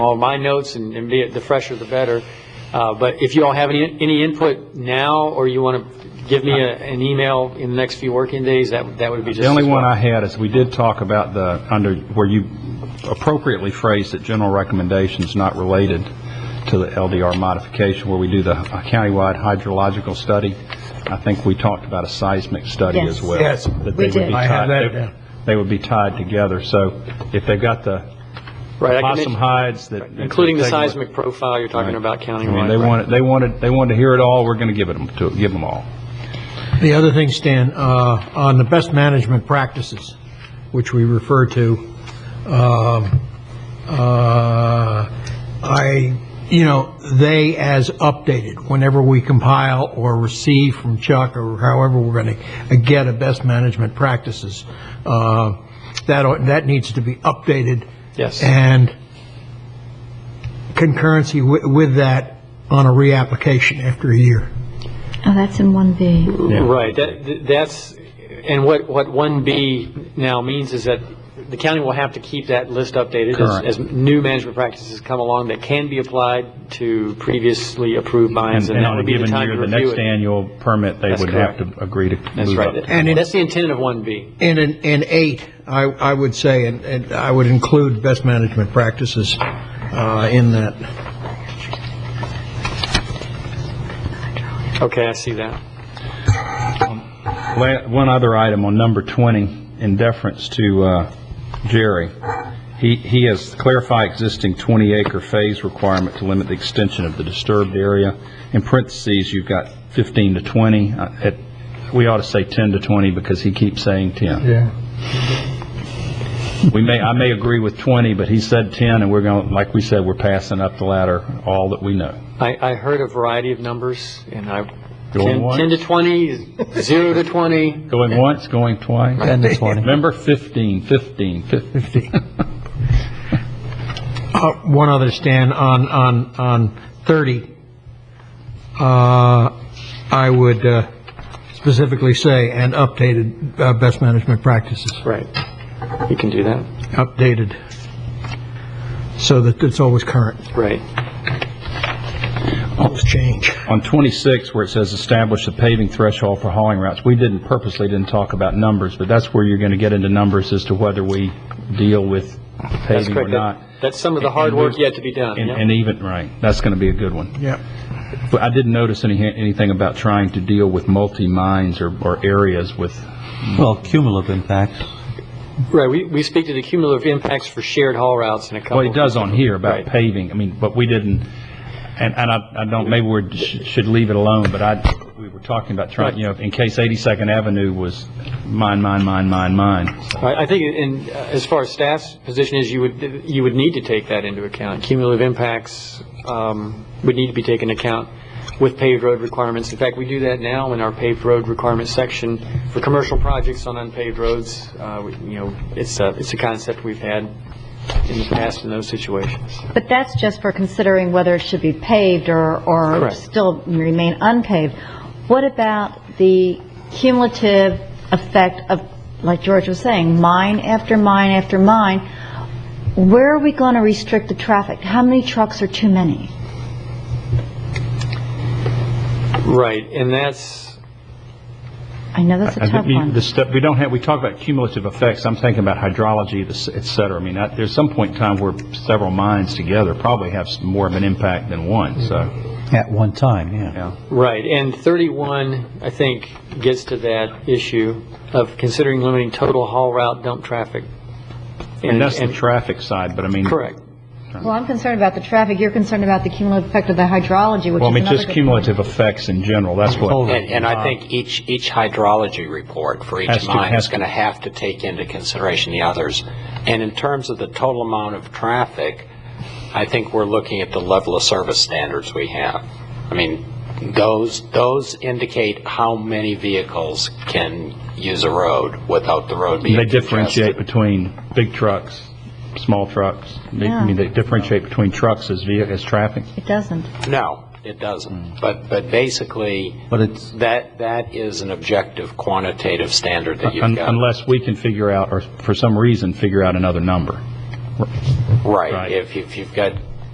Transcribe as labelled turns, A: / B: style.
A: all my notes and and be it, the fresher the better. Uh, But if you all have any, any input now, or you want to give me a- an email in the next few working days, that, that would be just.
B: The only
A: as
B: one
A: well.
B: I had is, we did talk about the, under, where you appropriately phrased that general recommendations not related to the LDR modification, where we do the countywide hydrological study. I think we talked about a seismic study
C: Yes.
B: as well.
D: Yes.
B: That
C: We
B: they would
C: did.
B: be
D: I have
B: tied-
D: that
B: they-
D: down.
B: They would be tied together, so if they've got the
A: Right, I can
B: possum
A: mention-
B: hides that...
A: Including the
B: that they would-
A: seismic profile you're talking about
B: I mean,
A: countywide.
B: they wanted, they wanted, they wanted to hear it all, we're going to give it 'em to, give them all.
D: The other thing, Stan, uh, on the best management practices, which we refer to, um, uh, I, you know, they as updated, whenever we compile or receive from Chuck or however we're going to get a best management practices, uh, that, ought- that needs to be updated.
A: Yes.
D: And concurrency wi- with that on a reapplication after a year.
C: Oh, that's in 1B.
A: Right, that, that's, and what, what 1B now means is that the county will have to keep that list updated
B: Correct.
A: as, as new management practices come along that can be applied to previously approved mines, and that
B: on a
A: would be the
B: given
A: time
B: year,
A: to
B: the
A: review
B: next
A: it.
B: annual permit, they
A: That's
B: would have
A: correct.
B: to agree to
A: That's
B: move up.
A: right,
D: And it-
A: that's the intent of 1B.
D: And in, in eight, I, I would say, and, and I would include best management practices, uh, in that.
A: Okay, I see that.
B: La- One other item on number 20, in deference to uh, Jerry, he he has clarified existing 20-acre phase requirement to limit the extension of the disturbed area. In parentheses, you've got 15 to 20. Uh, it- We ought to say 10 to 20 because he keeps saying 10.
D: Yeah.
B: We may, I may agree with 20, but he said 10, and we're going, to like we said, we're passing up the ladder all that we know.
A: I, I heard a variety of numbers, and I,
B: Going
A: 10
B: once.
A: 10 to 20, 0 to 20,
B: Going once, going twice. 10 to 20. Remember, 15, 15, 15.
D: Uh, one other, Stan, on, on, on thirty, uh, I would, uh, specifically say, and updated, uh, best management practices,
A: right, you can do that,
D: updated, so that it's always current,
A: right.
D: always change.
B: On 26, where it says establish the paving threshold for hauling routes, we didn't purposely didn't talk about numbers, but that's where you're going to get into numbers as to whether we deal with
A: That's
B: paving or
A: correct,
B: not.
A: That- that's some of the
B: And-
A: hard
B: and
A: work
B: there's-
A: yet to be done,
B: And
A: yeah.
B: and even, right, that's going to be a good one.
D: Yeah.
B: But I didn't notice any, anything about trying to deal with multi-mines or, or areas with,
E: Well, cumulative impact.
A: Right, we, we speak to the cumulative impacts for shared haul routes in a couple.
B: well, it does on here about
A: Right.
B: paving, I mean, but we didn't, and, and I, I don't, maybe we should leave it alone, but I, we were talking about trying, you know, in case 82nd Avenue was mine, mine, mine, mine, mine.
A: I, I think in, uh, as far as staff's position is, you would, you would need to take that into account. Cumulative impacts, um, would need to be taken into account with paved road requirements. In fact, we do that now in our paved road requirement section for commercial projects on unpaved roads. Uh, we- you know, it's a, it's a concept we've had in the past in those situations.
C: But that's just for considering whether it should be paved or, or
A: Correct.
C: still remain unpaved. What about the cumulative effect of, like George was saying, mine after mine after mine? Where are we going to restrict the traffic? How many trucks are too many?
A: Right, and that's,
C: I know that's a
B: I
C: tough
B: think we-
C: one.
B: the stuff- we don't have, we talk about cumulative effects, I'm thinking about hydrology, this- et cetera. I mean, I- there's some point in time where several mines together probably have s- more of an impact than one, so,
E: Mm-hmm. At one time, yeah.
B: yeah.
A: Right, and 31, I think, gets to that issue of considering limiting total haul route dump traffic.
B: And that's the traffic side, but I mean.
A: Correct.
C: Well, I'm concerned about the traffic, you're concerned about the cumulative effect of the hydrology, which is
B: Well, I mean,
C: another
B: just
C: good-
B: cumulative effects in general, that's what,
F: And, and I think each, each hydrology report for
B: Um, Has
F: each
B: to-
F: mine
B: has
F: is
B: to.
F: going to have to take into consideration the others. And in terms of the total amount of traffic, I think we're looking at the level of service standards we have. I mean, those, those indicate how many vehicles can use a road without the road being
B: they
F: congested.
B: differentiate between big trucks, small trucks. They- I mean, they differentiate between trucks as vehi, as traffic.
C: It doesn't.
F: No, it doesn't.
B: Mm.
F: But, but basically,
E: But it's,
F: that, that is an objective quantitative standard that you've
B: un-
F: got.
B: Unless we can figure out, or for some reason, figure out another number.
F: Right,
B: Right.
F: if, if you've got